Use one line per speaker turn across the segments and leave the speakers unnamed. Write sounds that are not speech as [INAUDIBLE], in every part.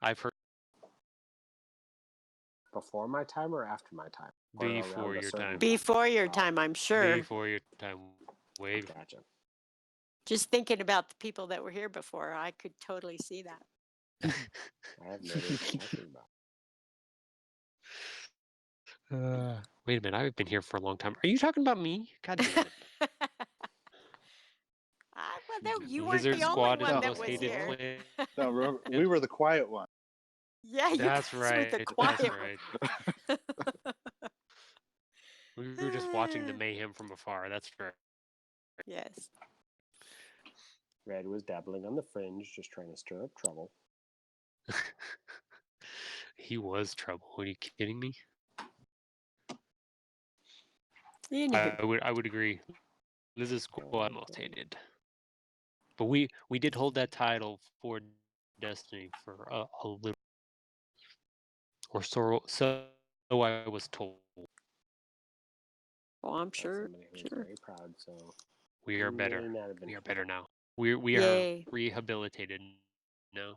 I've heard
Before my time or after my time? Or around
Before
a
your
certain
time.
Before your
Oh.
time, I'm sure.
before your time, way before.
Gotcha.
Just thinking about the people that were here before, I could totally see that.
I have no idea what you're talking
[LAUGHS]
about.
Uh, wait a minute, I've been here for a long time. Are you talking about me? God damn it.
Ah, well, no, [LAUGHS] you weren't
Lizard
the
Squad is
only one
the
that
most
was
hated
here.
place.
No,
[LAUGHS]
we're- we were the quiet one.
Yeah, [LAUGHS] you
That's
guys were
right.
the quiet
That's
one.
right.
[LAUGHS]
We were just watching
[SIGHS]
the
Ah.
mayhem from afar. That's right.
Yes.
Red was dabbling on the fringe, just trying to stir up trouble.
He was trouble. Are you kidding me?
You knew. [LAUGHS]
I, I would I would agree. This is cool. I'm most hated. But we we did hold that title for Destiny for a, a little, or so so I was told.
oh, I'm
That's
sure.
Somebody who was
sure.
very proud, so
We are
he may
better.
not have been
We are
happy.
better now. We we
Yay.
are rehabilitated. No,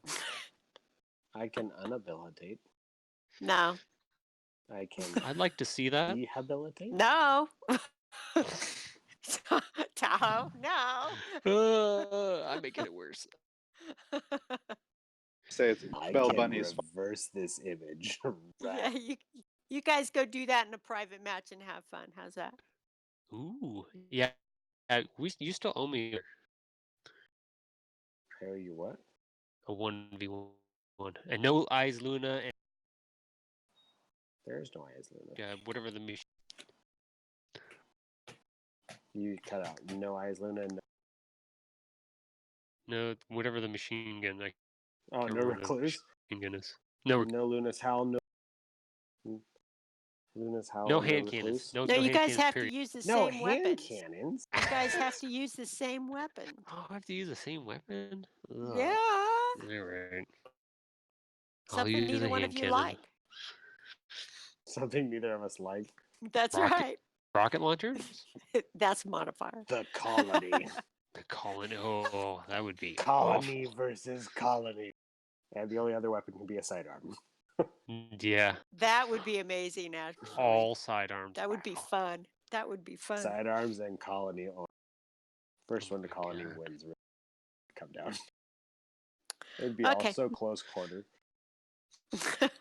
I can unhabilitate.
No,
I can
[LAUGHS] I'd like to see that. [LAUGHS]
rehabilitate.
no. [LAUGHS]
[LAUGHS]
Tahoe, no.
Uh, I'm making it worse.
Say it's
I
Bell
can
Bunny's fault.
reverse this image. [LAUGHS]
yeah,
Right.
you, you guys go do that in a private match and have fun. How's that?
Ooh, yeah. yeah, we you still owe me
Tell you what?
a one v one, and no eyes, Luna, and
There's no eyes, Luna.
uh, whatever the mission.
You cut out no eyes, Luna. No...
No, whatever the machine gun, like
Oh,
Can't
no
remember the
recluse.
machine gun is. No, rec-
No Luna's howl. No Hmm. Luna's howl.
no hand cannons.
recluse.
No,
No,
no
you
hand
guys
cannons,
have
period.
to use the
No
same
hand
weapons.
cannons.
You guys have to use the same weapon.
[GASPS] Oh, I have to use the same weapon.
Yeah.
All right. I'll
Something
use
neither
a
one of
hand
you
cannon.
like.
Something neither of us like.
That's
Rocket-
right.
Rocket launchers?
That's modifier.
The colony.
The colony. Oh, that would be awful.
colony versus colony. And the only other weapon can be a sidearm.
N- Yeah,
That would be amazing, actually.
all sidearms.
That would be
Wow.
fun. That would be fun. [LAUGHS]
Sidearms and colony. on- First
Oh
one to
my
colony
God.
wins. really. Come down. It'd be
Okay.
also close quarter. All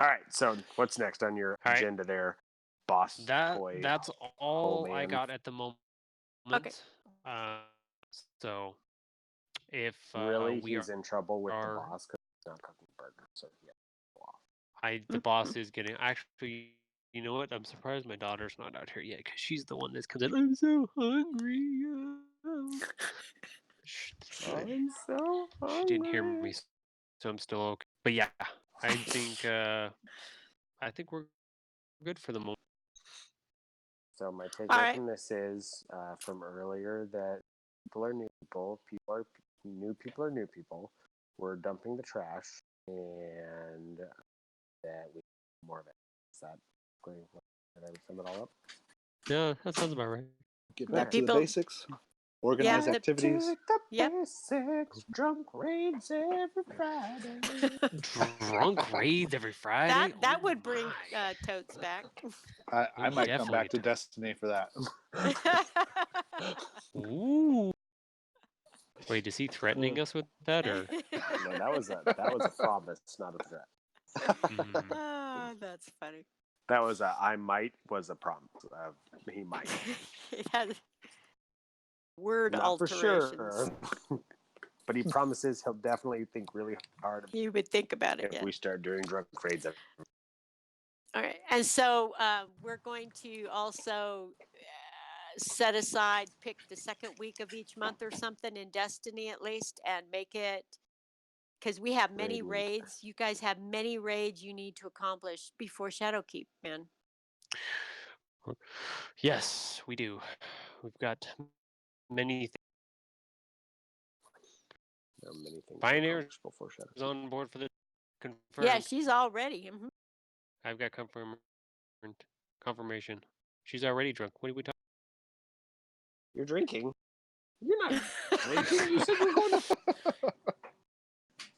right. So what's next on your
All right.
agenda there, boss?
That
boy?
that's
Oh,
all I
man.
got at the moment. Uh, so if uh,
really,
we
he's
are,
in trouble with
are-
the boss because he's not cooking burger. So yeah.
I the
Mm-hmm.
boss is getting actually. You know what? I'm surprised my daughter's not out here yet because she's the one that's comes in. I'm so hungry. uh, sh- sh-
so
She didn't hear me, s- so I'm still okay. But yeah, I
[LAUGHS]
think uh, I think we're good for the moment.
So my takeaway
right.
from this is uh, from earlier that people are new people. People are new people are new people. We're dumping the trash, and that we need more of it. Is that basically what- did I sum it all up?
Yeah, that sounds about right.
Get
Yeah,
back to
people-
the basics. Organize
Yeah, the-
activities.
To the
Yep.
basics, drunk raids every Friday.
Drunk raids every Friday.
that that
Oh
would bring
my.
uh, totes
[LAUGHS]
back. [LAUGHS]
I, I
we
might come
definitely
back to
do.
Destiny for
[LAUGHS]
that.
Ooh. Wait, is he threatening us with that or?
no, that was [LAUGHS] a that was a promise, not a threat.
Mm,
[LAUGHS] Ah, that's funny. [LAUGHS]
That was a I might was a promise. Uh, he might.
It has- word
Not for
alterations.
sure. [LAUGHS] but he promises he'll definitely think really hard
You would think about it.
if
yeah.
we start doing drunk raids.
All right, and so uh, we're going to also uh, set aside, pick the second week of each month or something in Destiny at least, and make it because we have many
Raid week.
raids. You guys have many raids you need to accomplish before Shadowkeep, man.
Yes, we do. We've got many
There are many things.
Pioneer-
accomplished before
things
Shadow.
on board for the confirmed.
Yeah, she's already. mhm.
I've got confirm confirmation. She's already drunk. What are we talking?
[LAUGHS]
[LAUGHS]
You're drinking. You're not. drinking. You said we're going to.
That's